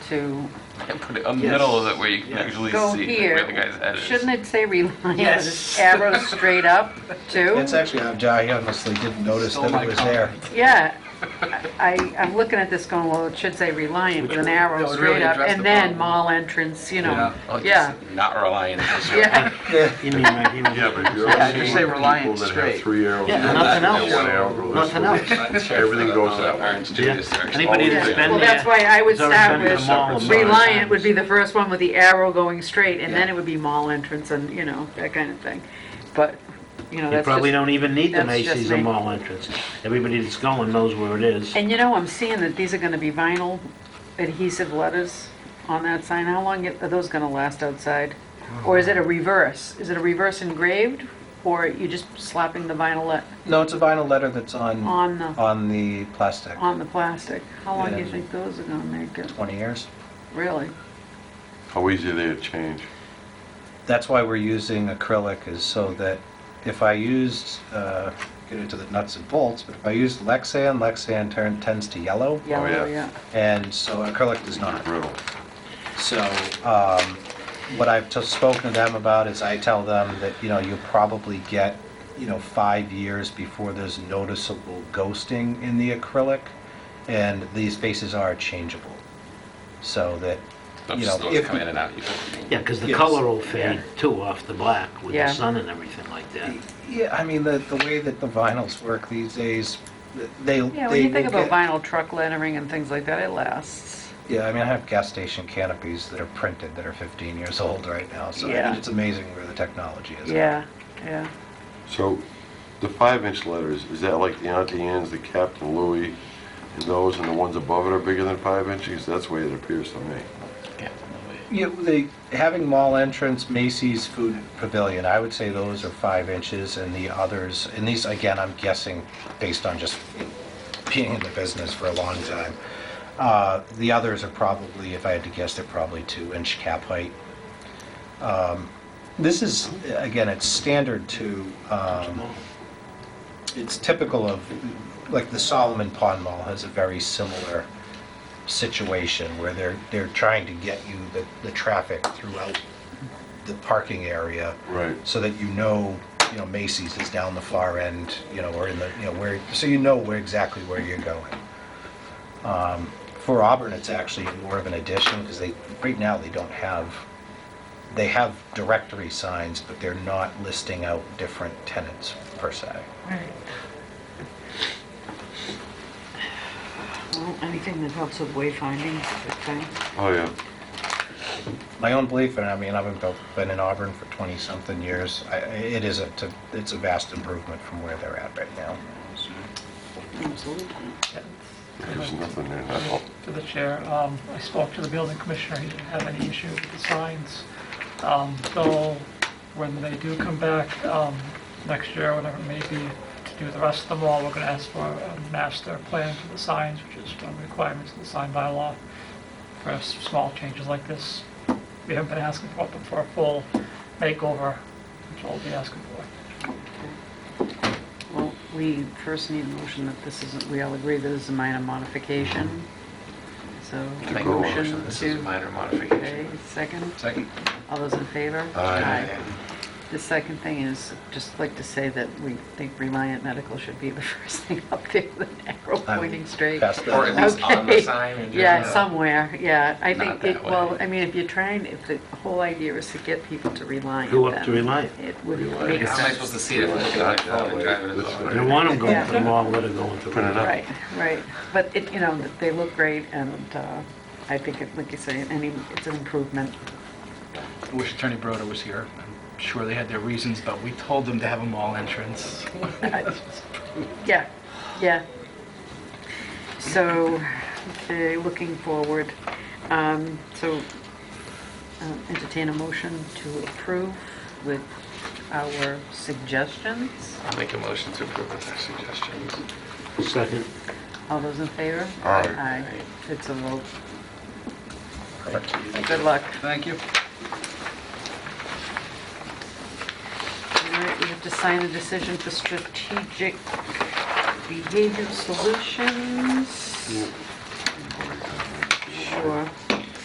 to Put it in the middle of it where you can Yes. actually go see where here, the guy's head is. shouldn't it say Reliance, Yes. arrow straight up too? That's actually how Jai honestly didn't notice Stole that my it was there. comment. Yeah, I, I'm looking at this going, well, it should say Reliant with an that arrow would straight really up, address and the then problem. mall entrance, you know, Oh, it's yeah, Not reliant. yeah. Yeah, You mean like even Yeah, but if you're Yeah, seeing just say Reliant people that straight. have three arrows. Yeah, in nothing the back, else. One arrow goes this Nothing way. else. Everything Oh, goes that way. Orange Yeah. juice, there's Anybody always that's a- been- Well, that's why I would Has always start been to the with mall. Reliant would be the first one with the arrow going straight, and then it would be mall entrance and, you know, that kind of thing. But, you know, You that's probably just, don't even need the that's just Macy's or me. mall entrance. Everybody that's going knows where it is. and you know, I'm seeing that these are gonna be vinyl adhesive letters on that sign. How long are those gonna last outside? Or is it a reverse? Is it a reverse engraved, or you just slapping the vinyl let, no, it's a vinyl letter that's on, on the, on the plastic. on the plastic? How long do you Yeah. Oh, think those are gonna make it, 20 years. really? How easy are they to change? That's why we're using acrylic is so that if I used, uh, get into the nuts and bolts, but if I used Lexan, Lexan turn, tends to yellow. Yellow, yeah. yeah. And so acrylic does not. Brittle. So um, what I've just spoken to them about is I tell them that, you know, you'll probably get, you know, five years before there's noticeable ghosting in the acrylic, and these faces are changeable. So that, Those you know, those if- come in and out. you don't- Yeah, because the Yes. color will fade too off the black with the Yeah. sun and everything like that. yeah, I mean, the, the way that the vinyls work these days, they, they will Yeah, when you think about get- vinyl truck lettering and things like that, it lasts. Yeah, I mean, I have gas station canopies that are printed that are 15 years old right now, so I Yeah. mean, it's amazing where the technology is. Yeah, yeah. So the five-inch letters, is that like the Auntie Anne's, the Captain Louis, and those, and the ones above it are bigger than five inches? That's the way it appears to me. Yeah, the, having mall entrance, Macy's Food Pavilion, I would say those are five inches, and the others, and these, again, I'm guessing, based on just being in the business for a long time. Uh, The others are probably, if I had to guess, they're probably two-inch cap height. Um, This is, again, it's standard to, um, it's typical of, like, the Solomon Pond Mall has a very similar situation where they're, they're trying to get you the, the traffic throughout the parking area Right. so that you know, you know, Macy's is down the far end, you know, or in the, you know, where, so you know where exactly where you're going. Um, For Auburn, it's actually more of an addition because they, right now, they don't have, they have directory signs, but they're not listing out different tenants per se. Well, anything that helps with wayfinding, good thing. Oh, yeah. My own belief, and I mean, I've been- been in Auburn for 20-something years, I- it is a, t- it's a vast improvement from where they're at right now. Absolutely. There's nothing there at all. to the chair. Um, I spoke to the building commissioner, he didn't have any issue with the signs. Um, Though, when they do come back um, next year, whatever it may be, to do the rest of them all, we're going to ask for a master plan for the signs, which is one of the requirements of the sign bylaw for s- small changes like this. We haven't been asking for it, but for a full makeover, which we'll be asking for. Well, we first need a motion that this isn't, we all agree this is a minor modification. So, Make a Cool. motion, this is a to, minor modification. okay, second, Second. all those in favor? Aye. The second thing is, just like to say that we think Reliant Medical should be the first thing up there, the arrow I'm pointing straight. past that. Or at least on the Okay. sign in Yeah, general. somewhere, yeah. I Not think, it that way. well, I mean, if you're trying, if the whole idea is to get people to rely Go on up to them, Reliant. it would make Reliant. How am I sense. supposed to see it? if I'm looking at my phone and driving it over? You don't want them going to the mall, let it go into Print it Reliant. up. Right, right. But it, you know, they look great and uh, I think, it- like you say, any, it's an improvement. I wish Attorney Broder was here. I'm sure they had their reasons, but we told them to have a mall entrance. Yeah, yeah. So, okay, looking forward. Um, So uh, entertain a motion to approve with our suggestions. I'll make a motion to approve with our suggestions. Second. All those in favor? Aye. It's a vote. Perfect. Good luck. Thank you. All right, we have to sign the decision for strategic behavior solutions.